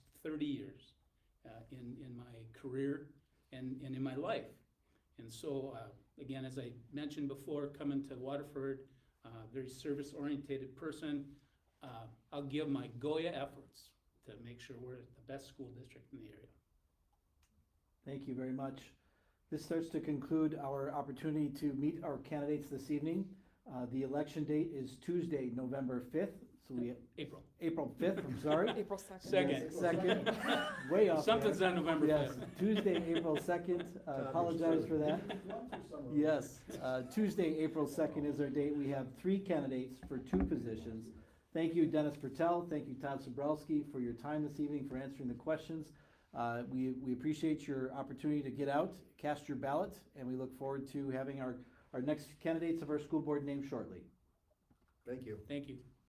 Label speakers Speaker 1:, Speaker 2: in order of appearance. Speaker 1: 30 years uh, in, in my career and, and in my life. And so, uh, again, as I mentioned before, coming to Waterford, uh, very service oriented person, uh, I'll give my Goya efforts to make sure we're the best school district in the area.
Speaker 2: Thank you very much. This starts to conclude our opportunity to meet our candidates this evening. Uh, The election date is Tuesday, November 5th, so we,
Speaker 1: April.
Speaker 2: April 5th, I'm sorry.
Speaker 3: April 2nd.
Speaker 1: Second.
Speaker 2: Second, way off.
Speaker 1: Something's on November 5th.
Speaker 2: Yes, Tuesday, April 2nd. I Apologize for that. Yes, uh, Tuesday, April 2nd is our date. We have three candidates for two positions. Thank you, Dennis Patel. Thank you, Todd Sobrowski, for your time this evening, for answering the questions. Uh, We we appreciate your opportunity to get out, cast your ballot, and we look forward to having our our next candidates of our school board named shortly.
Speaker 4: Thank you.
Speaker 1: Thank you.